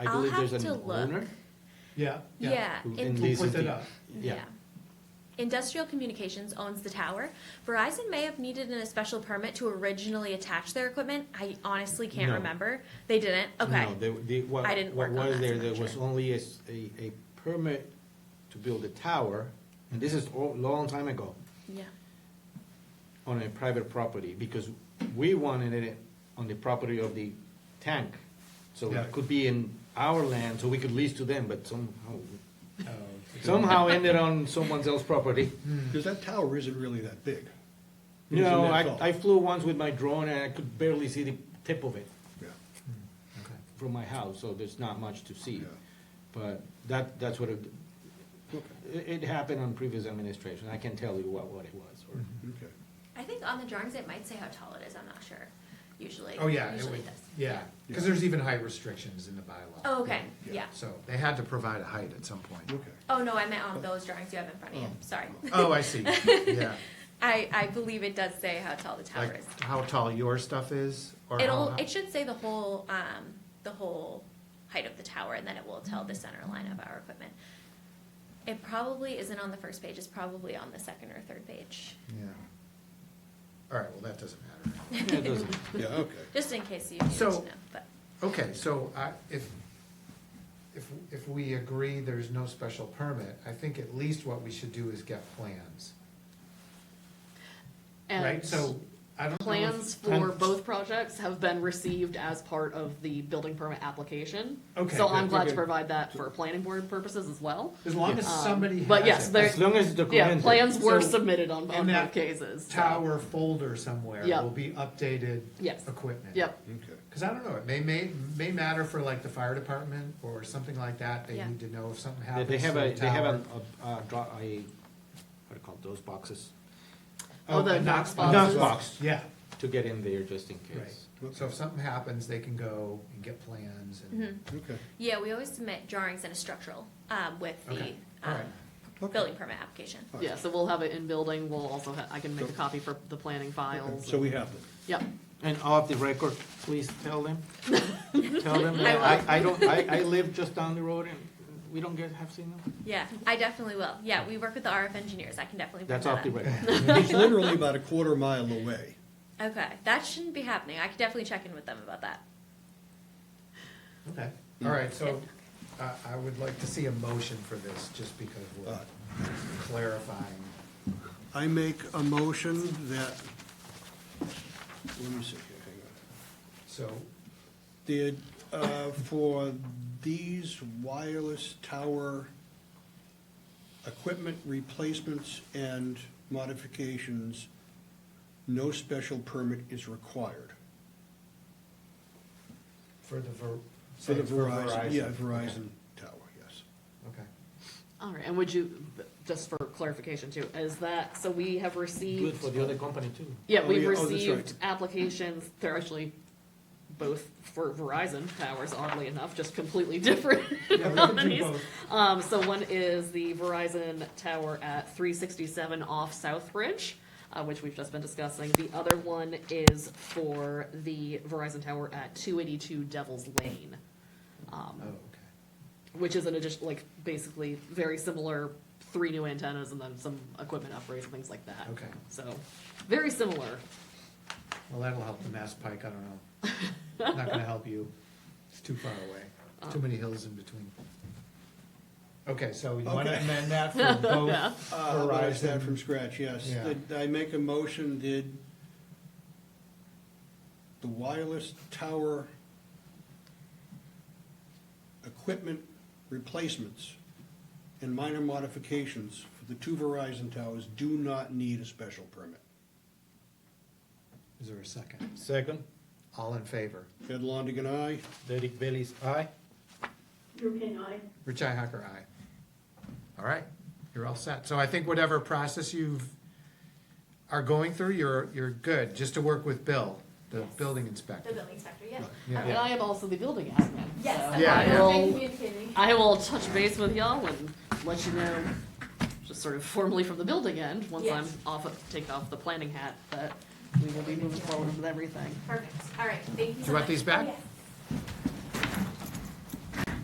I I'll believe there's have an to look. owner Yeah, yeah. Yeah. who in- and Who leases put that the- up? Yeah, Industrial Communications owns the tower. Verizon may have needed a special permit to originally attach their equipment. I honestly can't No. remember. They didn't. Okay. no, the, the, what, I didn't what work on was that, there, so I'm there not was sure. only a, s- a, a permit to build a tower, and this is a long time ago, Yeah. on a private property, because we wanted it on the property of the tank. So Yeah. it could be in our land, so we could lease to them, but somehow, Oh, okay. somehow ended on someone else's property. Because that tower isn't really that big. You Hmm. Isn't know, that I, tall? I flew once with my drone and I could barely see the tip of it Yeah, from my house, so there's not much to see. Yeah. But that, that's what it, okay, it, it happened on previous administration, I can tell you what, what it was, or, okay. I think on the drawings it might say how tall it is. I'm not sure. Usually. Oh, yeah, it Usually would, it does. yeah, because there's even height restrictions in the bylaw. Oh, okay. Yeah. Yeah. So they had to provide a height at some point. Okay. Oh no, I meant on those drawings you have in front of you. Oh. Sorry. Oh, I see, yeah, I, I believe it does say how tall the tower like is. how tall your stuff is, or how. It'll hi- it should say the whole um, the whole height of the tower, and then it will tell the center line of our equipment. It probably isn't on the first page. It's probably on the second or third page, Yeah. All right, well, that doesn't matter. it doesn't. Yeah, okay. just in case you need to So- know. But Okay, so I, if, if, if we agree there's no special permit, I think at least what we should do is get plans, right? And So, I don't know if- plans for both projects have been received as part of the building permit application. Okay, So good, I'm glad good, to good. provide that for planning board purposes as well. as long as Um, somebody has. But yes, it, there, As long as it's yeah, documented. plans were So, submitted on on in that both cases. so- Tower folder somewhere Yep. will be updated. Yes. Equipment. Yep, Okay. Cause I don't know, it may, may, may matter for like the fire department or something like that, they Yeah. need to know if something They- happens They have to a, the they have tower. a, a, a, dra- a, what do you call those boxes? Oh, the a Knox Knox Boxes. box, Yeah, to get in there just in case. right, so if something happens, they can go and get plans and, Okay. yeah, we always submit drawings and a structural um, with the Okay. um, alright, Okay. building permit application. yeah, so we'll have it in building, we'll also, ha- I can make a copy for the planning files. So we have them. Yep, And off the record, please tell them, tell them, I will. that I, I don't, I, I live just down the road and we don't get, have signal. Yeah, I definitely will. Yeah, we work with the RF engineers. I can definitely. bring That's that off the up. record. It's literally about a quarter mile away. Okay, that shouldn't be happening. I could definitely check in with them about that. okay, alright, so I, I would like to see a motion for this, just because we're Alright. Uh. clarifying. I make a motion that, let me see here, hang on. So, The, uh, for these wireless tower equipment replacements and modifications, no special permit is required. for the Ver. For the say Verizon, yeah, okay, Verizon tower, yes. Okay, all right, and would you, just for clarification too, is that, so we have received. Good for the other company too. Yeah, Oh, we've yeah, oh, that's right. received applications, they're actually both for Verizon towers, oddly enough, just completely different companies. Um, so one is the Verizon tower at three sixty-seven off South Bridge, uh, which we've just been discussing. The other one is for the Verizon tower at two eighty-two Devil's Lane, oh, um, okay. which is an addition, like, basically very similar, three new antennas and then some equipment upgrades and things like that. Okay. So, very similar. Well, that'll help the Mass Pike, I don't know. Not gonna help you. It's too far away. Too many hills in between. Okay, so you wanna Okay. amend that for both Uh, Verizon that from Verizon? scratch, yes. Yeah. Did I make a motion, did the wireless tower equipment replacements and minor modifications for the two Verizon towers do not need a special permit? Is there a second? Second, All in favor? Ed Longigan, aye. Derek Bailey's aye. Durkin, aye. Richi Hacker, aye. All right, you're all set. So I think whatever process you've, are going through, you're, you're good, just to work with Bill, the Yes. building inspector. The building inspector, yeah. And Yeah, I am also the building admin. Yes, so Yeah, I yeah. will, communicating. I will touch base with y'all and let you know, just sort of formally from the building end, once I'm Yes. off, of- take off the planning hat, that we will be moving forward with everything. Perfect. All right, thank you so much. Oh, you want these back? Yes.